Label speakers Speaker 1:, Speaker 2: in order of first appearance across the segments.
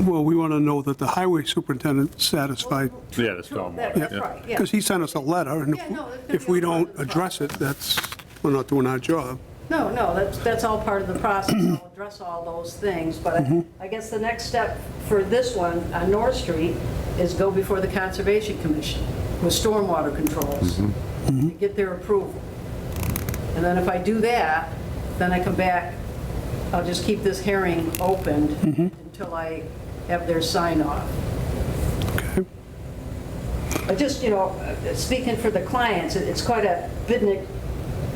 Speaker 1: Well, we want to know that the highway superintendent's satisfied,
Speaker 2: Yeah, the stormwater.
Speaker 1: yeah.
Speaker 2: yeah.
Speaker 3: That's right, yeah.
Speaker 1: Because he sent us a letter, and
Speaker 3: Yeah, no, that's gonna
Speaker 1: if
Speaker 3: be
Speaker 1: we
Speaker 3: a part
Speaker 1: don't
Speaker 3: of the
Speaker 1: address it, that's, we're not doing our job.
Speaker 3: No, no, that's, that's all part of the process. I'll address all those things, but I- I guess the next step for this one on North Street is go before the Conservation Commission with stormwater controls, and get their approval. And then if I do that, then I come back, I'll just keep this hearing opened until I have their sign off.
Speaker 1: Okay.
Speaker 3: But just, you know, uh, speaking for the clients, it- it's quite a bit, an-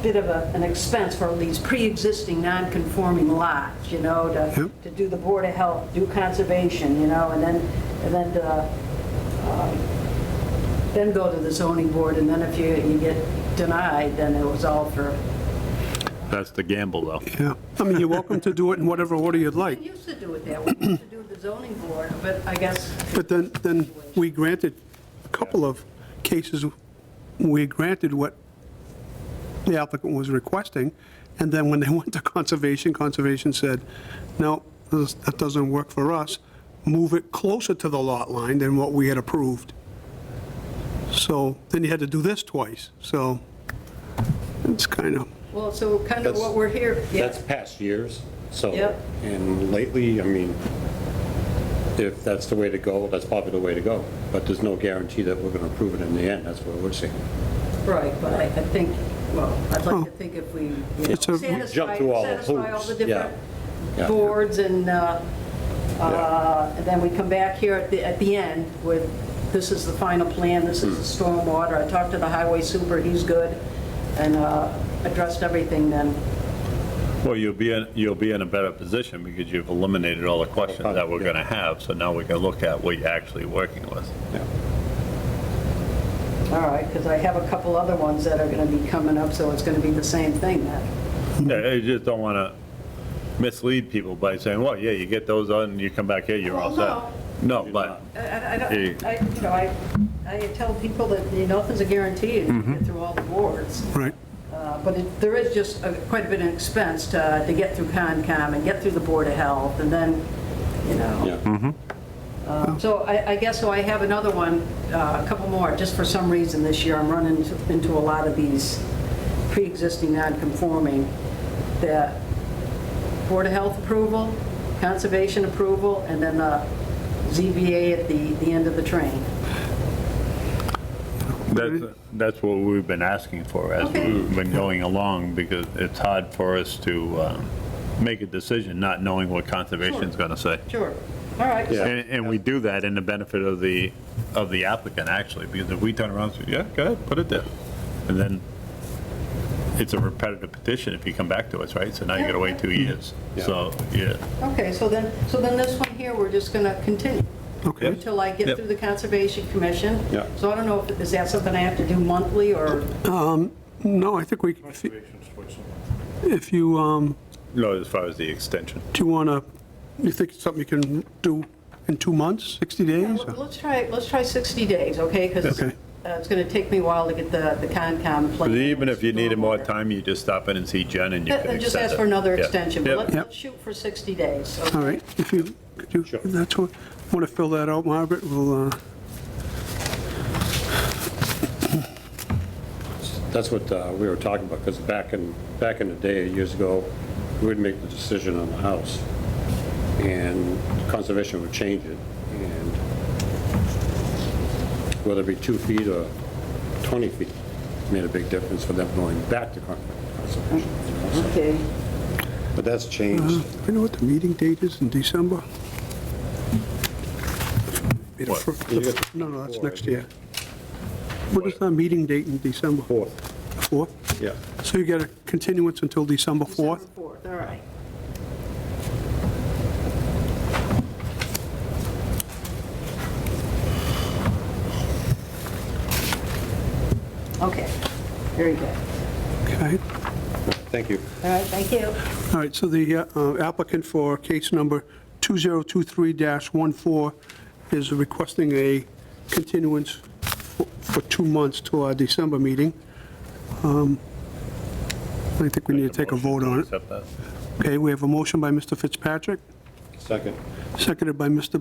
Speaker 3: bit of a- an expense for these pre-existing non-conforming lots, you know, to,
Speaker 1: Yep.
Speaker 3: to do the Board of Health, do conservation, you know, and then, and then, uh, um, then go to the zoning board, and then if you, you get denied, then it was all for.
Speaker 2: That's the gamble, though.
Speaker 1: Yeah. I mean, you're welcome to do it in whatever order you'd
Speaker 3: We
Speaker 1: like,
Speaker 3: used to do it that way, we used to do the zoning board, but I guess,
Speaker 1: but then, then we granted a couple of cases, we granted what the applicant was requesting, and then when they went to Conservation, Conservation said, no, this- that doesn't work for us, move it closer to the lot line than what we had approved. So then you had to do this twice, so it's kind of,
Speaker 3: well, so kind of
Speaker 4: That's-
Speaker 3: what we're here. yeah.
Speaker 4: That's past years, so.
Speaker 3: Yep.
Speaker 4: And lately, I mean, if that's the way to go, that's probably the way to go. But there's no guarantee that we're going to approve it in the end, that's what we're saying.
Speaker 3: Right, but I I think, well, I'd like to think if we, you know,
Speaker 1: It's a-
Speaker 3: satisfy,
Speaker 4: Jump through all the
Speaker 3: satisfy all the
Speaker 4: hoops, yeah.
Speaker 3: different
Speaker 4: Yeah.
Speaker 3: boards, and uh,
Speaker 4: Yeah.
Speaker 3: uh, and then we come back here at the, at the end with, this is the final plan, this is the
Speaker 4: Hmm.
Speaker 3: stormwater, I talked to the highway super, he's good, and uh, addressed everything then.
Speaker 2: Well, you'll be, in you'll be in a better position because you've eliminated all the questions that we're going to have, so now we can look at what you're actually working with.
Speaker 4: Yeah.
Speaker 3: All right, because I have a couple other ones that are going to be coming up, so it's going to be the same thing then.
Speaker 2: Yeah, You just don't want to mislead people by saying, well, yeah, you get those on, and you come back here, you're all set.
Speaker 3: Well,
Speaker 2: No, but,
Speaker 3: I I don't,
Speaker 2: Yeah.
Speaker 3: I, you know, I, I tell people that, you know, nothing's a guarantee, you
Speaker 4: Mm-hmm.
Speaker 3: get through all the boards.
Speaker 1: right.
Speaker 3: Uh, But it- there is just a- quite a bit of expense to, to get through Concom and get through the Board of Health, and then, you know.
Speaker 4: Yeah.
Speaker 3: Um, So I, I guess, so I have another one, uh, a couple more, just for some reason this year, I'm running into- into a lot of these pre-existing non-conforming that Board of Health approval, Conservation approval, and then the ZBA at the, the end of the train.
Speaker 2: That's, that's what we've been asking for as
Speaker 3: Okay.
Speaker 2: we've been going along, because it's hard for us to um, make a decision not knowing what conservation's going to say.
Speaker 3: Sure, all right.
Speaker 4: Yeah.
Speaker 2: And, and we do that in the benefit of the, of the applicant, actually, because if we turn around and say, yeah, go ahead, put it there. And then it's a repetitive petition if you come back to us, right? So now you gotta wait two years.
Speaker 4: Yeah.
Speaker 2: So, yeah.
Speaker 3: Okay, so then, so then this one here, we're just going to continue.
Speaker 1: Okay.
Speaker 3: Until I get
Speaker 2: Yep.
Speaker 3: through the Conservation Commission.
Speaker 4: Yeah.
Speaker 3: So I don't know, if is that something I have to do monthly, or,
Speaker 1: No, I think we, if you, um,
Speaker 2: No, as far as the extension.
Speaker 1: do you want to, you think it's something you can do in two months, 60 days?
Speaker 3: let's try, let's try 60 days, okay? Because
Speaker 1: Okay.
Speaker 3: it's going to take me a while to get the the Concom plan.
Speaker 2: But even if you needed more time, you just stop in and see Jen and you can
Speaker 3: Uh,
Speaker 2: extend
Speaker 3: Just ask
Speaker 2: it.
Speaker 3: for another
Speaker 2: Yeah.
Speaker 3: extension, but
Speaker 2: Yeah.
Speaker 3: let's-
Speaker 1: Yep.
Speaker 3: let's shoot for 60 days. okay?
Speaker 1: All right, if you, could you, that's what, want to fill that out, Margaret, we'll, uh,
Speaker 4: That's what uh, we were talking about, because back in, back in the day, years ago, we would make the decision on the house, and conservation would change it, and whether it be two feet or 20 feet, made a big difference for them going back to con- conservation. you know, so-
Speaker 3: Okay,
Speaker 4: But that's changed.
Speaker 1: I know what the meeting date is in December. Be the
Speaker 2: What?
Speaker 1: fir-
Speaker 4: You got the-
Speaker 1: No, no, that's next year. What is our meeting date in December?
Speaker 4: Fourth,
Speaker 1: Fourth?
Speaker 4: yeah.
Speaker 1: So you get a continuance until December 4th?
Speaker 3: December 4th, all right. Okay, very good.
Speaker 1: Okay.
Speaker 4: Thank you.
Speaker 3: All right, thank you.
Speaker 1: All right, so the uh, applicant for case number 2023-14 is requesting a continuance for for two months to our December meeting. Um, I think we need to take a vote on it.
Speaker 2: Accept that.
Speaker 1: Okay, we have a motion by Mr. Fitzpatrick,
Speaker 4: Second.
Speaker 1: seconded by Mr.